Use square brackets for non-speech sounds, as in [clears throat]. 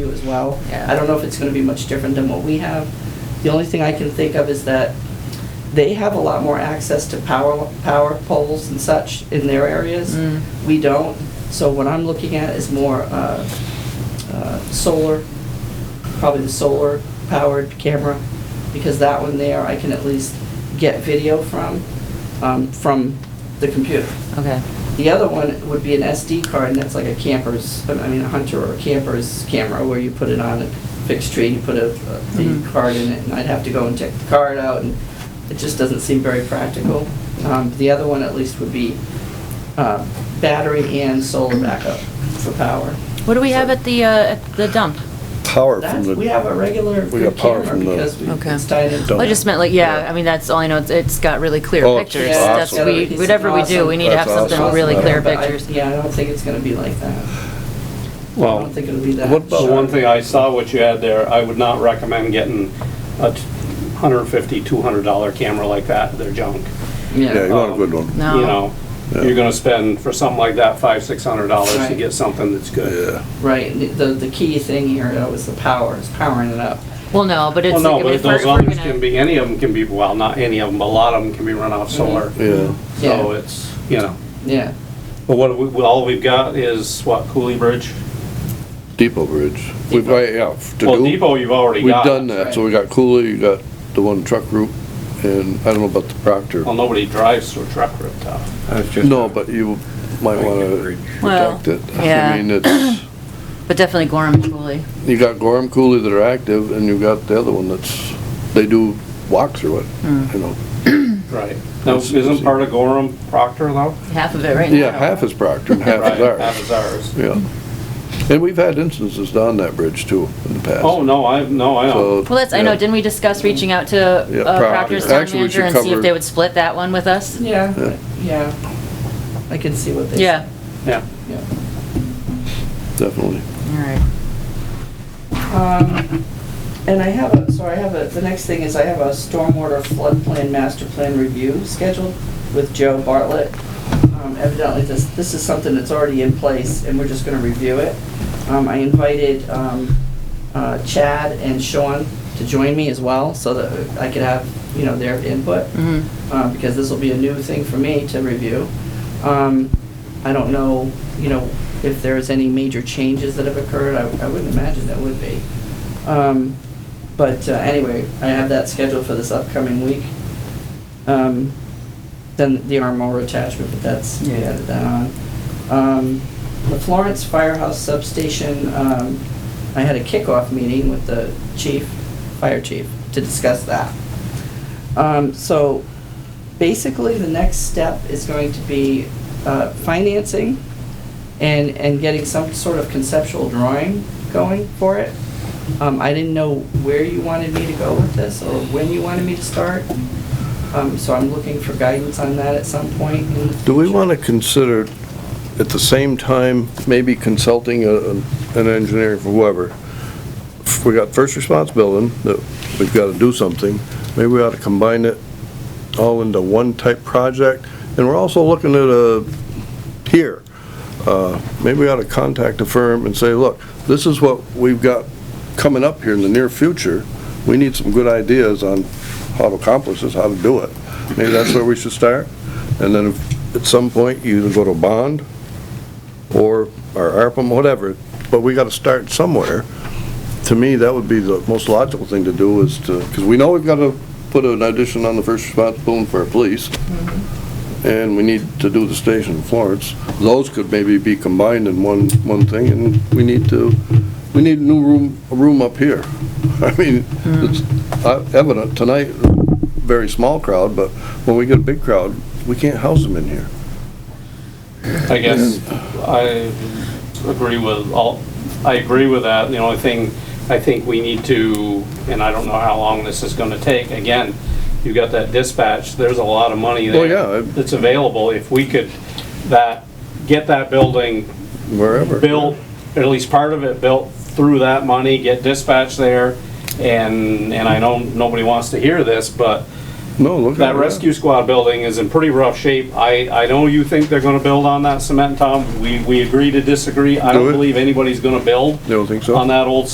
do as well. Yeah. I don't know if it's gonna be much different than what we have. The only thing I can think of is that they have a lot more access to power, power poles and such in their areas. Mm. We don't. So what I'm looking at is more uh, uh, solar, probably the solar-powered camera, because that one there, I can at least get video from, um, from the computer. Okay, The other one would be an SD card, and that's like a camper's, I mean, a hunter or a camper's camera, where you put it on a fixed tree, you put a, a- the Mhm. card in it, and I'd have to go and take the card out, and it just doesn't seem very practical. Um, The other one at least would be uh, battery and solar backup for power. what do we have at the, uh, at the dump? Power from That's, the. we have a regular We good got power camera, from the- because we- Okay. it's tied into. Dump. I just meant like, yeah, I mean, that's all I know, it's, it's got really clear Oh, pictures. it's That's, awesome. we, whatever we do, we need to have That's something with awesome. really clear But I- pictures. Yeah, I don't think it's gonna be like that. I Well, don't think it'll be that. what about- the one sharp. thing I saw what you had there, I would not recommend getting a t- $150, $200 camera like that, they're junk. Yeah, you want a good one. No. You know, Yeah. you're gonna spend for something like that, five, $600 to Right. get something that's good. Yeah, Right, and the, the key thing here though is the power, is powering it up. Well, no, but it's. Well, like, no, I mean, but if we're- those if we're others gonna- can be, any of them can be, well, not any of them, but a lot of them can be run off solar. yeah. So Yeah. it's, you know, Yeah, but what, we- well, all we've got is what, Cooley Bridge? Depot Bridge. We've, Depot. yeah, to Well, do. Depot, you've already We've got. done that, so we got Cooley, you got the one truck route, and I don't know about the Proctor. Well, nobody drives through truck rooftop. No, but you might wanna Well, protect it. yeah. I [clears throat] mean, it's, But definitely Gorham and Cooley. you got Gorham Cooley that are active, and you got the other one that's, they do walks through Hmm. it, you know. Right. Now, isn't part of Gorham Proctor though? half of it right now. Yeah, half is Proctor and half Right, is ours. Half is ours. Yeah. And we've had instances down that bridge too in the past. Oh, no, I, no, I know. So, Well, that's, I know, yeah. didn't we discuss reaching out to Yeah, uh, Proctor. Proctor's town Actually, we should manager and see if cover- they would split that one with us? yeah, yeah. I can see what they. say. Yeah, Yeah. Yeah. Definitely. all right. Um, And I have, a so I have, a the next thing is I have a stormwater flood plan, master plan review scheduled with Joe Bartlett. Um, Evidently, this, this is something that's already in place, and we're just gonna review it. Um, I invited um, uh, Chad and Sean to join me as well, so that I could have, you know, their input Mhm. uh, because this will be a new thing for me to review. Um, I don't know, you know, if there's any major changes that have occurred, I I wouldn't imagine there would be. Um, But uh, anyway, I have that scheduled for this upcoming week. Um, Then the armor attachment, but that's, we Yeah. added that on. Um, The Florence Firehouse Substation, um, I had a kickoff meeting with the chief, fire chief, to discuss that. Um, So basically, the next step is going to be uh, financing and, and getting some sort of conceptual drawing going for it. Um, I didn't know where you wanted me to go with this or when you wanted me to start. Um, So I'm looking for guidance on that at some point in the Do we future. want to consider, at the same time, maybe consulting a- an engineer for whoever? We got first response building, that we've got to do something. Maybe we ought to combine it all into one type project. And we're also looking at a, here, uh, maybe we ought to contact a firm and say, look, this is what we've got coming up here in the near future. We need some good ideas on how to accomplish this, how to do it. Maybe that's where we should start. And then if- at some point, you either go to bond or, or ARPA, whatever, but we gotta start somewhere. To me, that would be the most logical thing to do is to, because we know we've gotta put an addition on the first response boom for our police, and we need to do the station in Florence. Those could maybe be combined in one, one thing, and we need to, we need a new room, a room up here. [laughs] I mean, it's uh, evident tonight, very small crowd, but when we get a big crowd, we can't house them in here. I guess I agree with all, I agree with that. The only thing I think we need to, and I don't know how long this is gonna take, again, you got that dispatch, there's a lot of money Well, there. Oh, yeah, I- That's available. If we could, that, get that building wherever. built, or at least part of it built through that money, get dispatch there. And, and I know nobody wants to hear this, but No, look at that it. rescue squad building is in pretty rough shape. I, I know you think they're gonna build on that cement, Tom. We, we agree to disagree. I Do don't it. believe anybody's gonna build You don't think so? on that old